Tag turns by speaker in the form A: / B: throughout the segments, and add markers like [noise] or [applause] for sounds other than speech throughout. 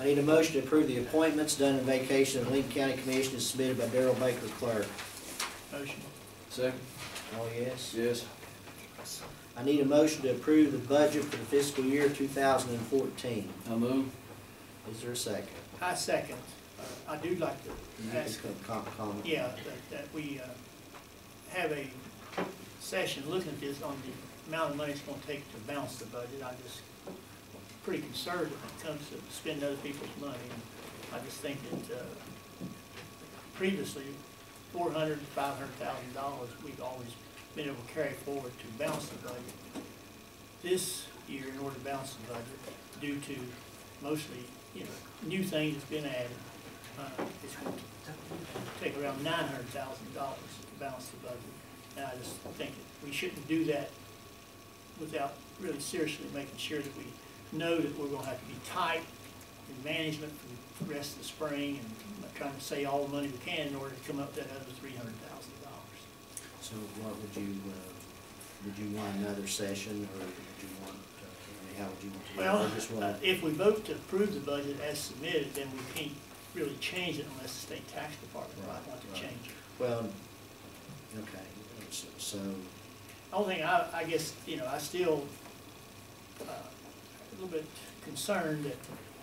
A: I need a motion to approve the appointments done in vacation of Lincoln County Commission as submitted by Daryl Baker Clerk.
B: Motion.
C: Second?
A: Oh, yes.
C: Yes.
A: I need a motion to approve the budget for the fiscal year two thousand and fourteen.
C: I move.
A: Is there a second?
B: I second. I do like to
A: You can
B: ask,
A: com- comment.
B: yeah, that, that we, uh, have a session looking at this on the amount of money it's gonna take to balance the budget. I just, pretty conservative when it comes to spending other people's money. And I just think that, uh, previously, four hundred, five hundred thousand dollars, we've always been able to carry forward to balance the budget. This year, in order to balance the budget, due to mostly, you know, new things that's been added, uh, it's going to take around nine hundred thousand dollars to balance the budget. And I just think that we shouldn't do that without really seriously making sure that we know that we're gonna have to be tight in management for the rest of the spring and not trying to save all the money we can in order to come up with that other three hundred thousand dollars.
A: So what would you, uh, would you want another session, or would you want, uh, I mean, how would you want to do it?
B: Well,
A: Or just
B: uh,
A: want-
B: if we vote to approve the budget as submitted, then we can't really change it unless the state tax department might want
A: Right,
B: to
A: right.
B: change it.
A: Well, okay, so, so
B: Only thing, I, I guess, you know, I still, uh, a little bit concerned that,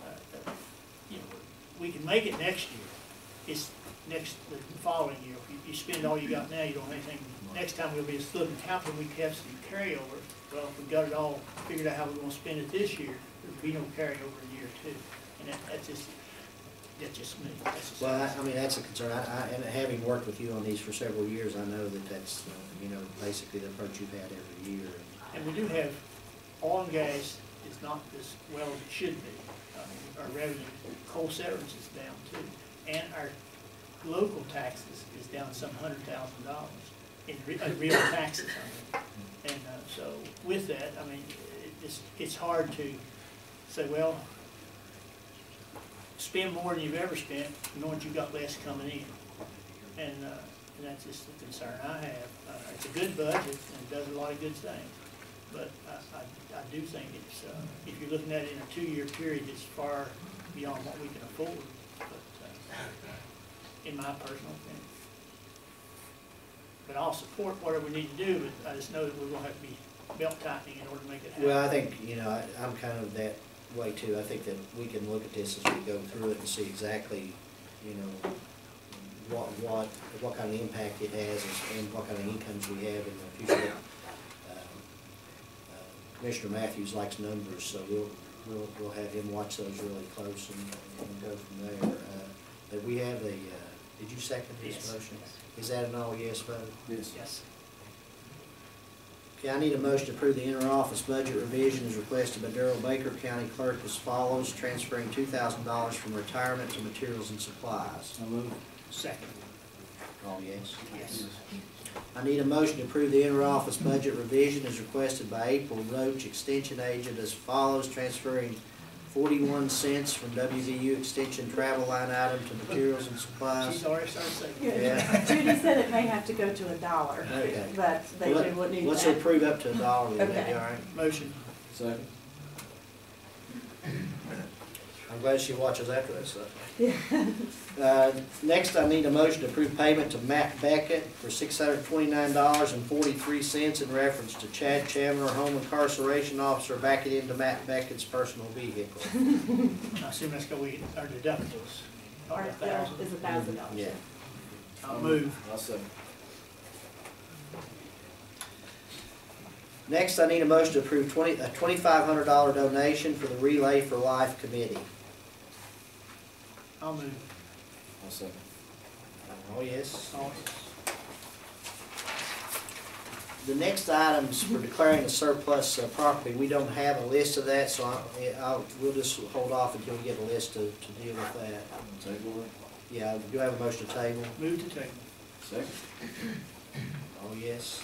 B: uh, that, you know, we can make it next year. It's next, the following year, if you, you spend all you got now, you don't have anything. Next time we'll be splitting capital, we have some carryover. Well, if we got it all figured out how we're gonna spend it this year, there'd be no carryover in year two. And that, that's just, that's just me, that's just.
A: Well, I, I mean, that's a concern, I, I, and having worked with you on these for several years, I know that that's, uh, you know, basically the approach you've had every year.
B: And we do have, oil and gas is not as well as it should be. Uh, Our revenue, coal severance is down too, and our local taxes is down some hundred thousand dollars in re- uh, real taxes, I mean. And uh, so with that, I mean, it- it's, it's hard to say, well, spend more than you've ever spent, knowing you've got less coming in. And, uh, and that's just the concern I have. Uh, it's a good budget and it does a lot of good things. But I, I, I do think it's, uh, if you're looking at it in a two-year period, it's far beyond what we can afford. But, uh, in my personal opinion. But I'll support whatever we need to do, but I just know that we're gonna have to be belt tightening in order to make it happen.
A: Well, I think, you know, I, I'm kind of that way too, I think that we can look at this as we go through it and see exactly, you know, what, what, what kind of impact it has and- and what kind of incomes we have in the future. Um, uh, Commissioner Matthews likes numbers, so we'll, we'll, we'll have him watch those really close and, and go from there. Uh, But we have a, uh, did you second this
B: Yes.
A: motion? Is that an all yes vote?
C: Yes.
B: Yes.
A: Okay, I need a motion to approve the inter-office budget revision as requested by Darrell Baker, County Clerk, as follows, transferring two thousand dollars from retirement to materials and supplies.
C: I move.
B: Second,
A: All yes.
B: yes.
A: I need a motion to approve the inter-office budget revision as requested by April Roach, Extension Agent, as follows, transferring forty-one cents from WVU Extension travel line item to materials and supplies.
B: She's already started saying,
A: Yeah.
D: Yeah, Judy said it may have to go to a dollar,
A: Okay.
D: but they do would need
A: Let's
D: that.
A: approve up to a dollar, then, that'd be
D: Okay.
A: all right?
B: motion,
C: Second?
A: I'm glad she watches after that stuff.
D: Yeah. [laughs]
A: Uh, Next, I need a motion to approve payment to Matt Beckett for six hundred twenty-nine dollars and forty-three cents in reference to Chad Chandler, home incarceration officer, backing into Matt Beckett's personal vehicle.
B: I assume that's gonna be our deductibles.
D: Or
B: A
D: if there
B: thousand.
D: is a thousand dollars.
A: Yeah.
B: I'll move,
C: I second.
A: Next, I need a motion to approve twenty, a twenty-five hundred dollar donation for the Relay for Life Committee.
B: I'll move.
C: I second.
A: Oh, yes.
B: All-
A: The next items for declaring a surplus uh, property, we don't have a list of that, so I, I'll, we'll just hold off until we get a list to, to deal with that.
C: Table it.
A: Yeah, do I have a motion to table?
B: Move to table.
C: Second?
A: Oh, yes.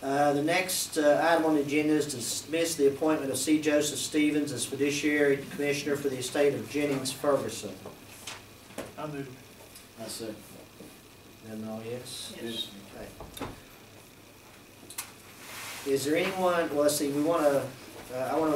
A: Uh, the next uh, item on the agenda is to dismiss the appointment of C. Joseph Stevens as fiduciary commissioner for the estate of Jennings Ferguson.
B: I'll move.
C: I second.
A: And all oh, yes?
B: Yes.
A: Okay. Is there anyone, well, let's see, we wanna, uh, I wanna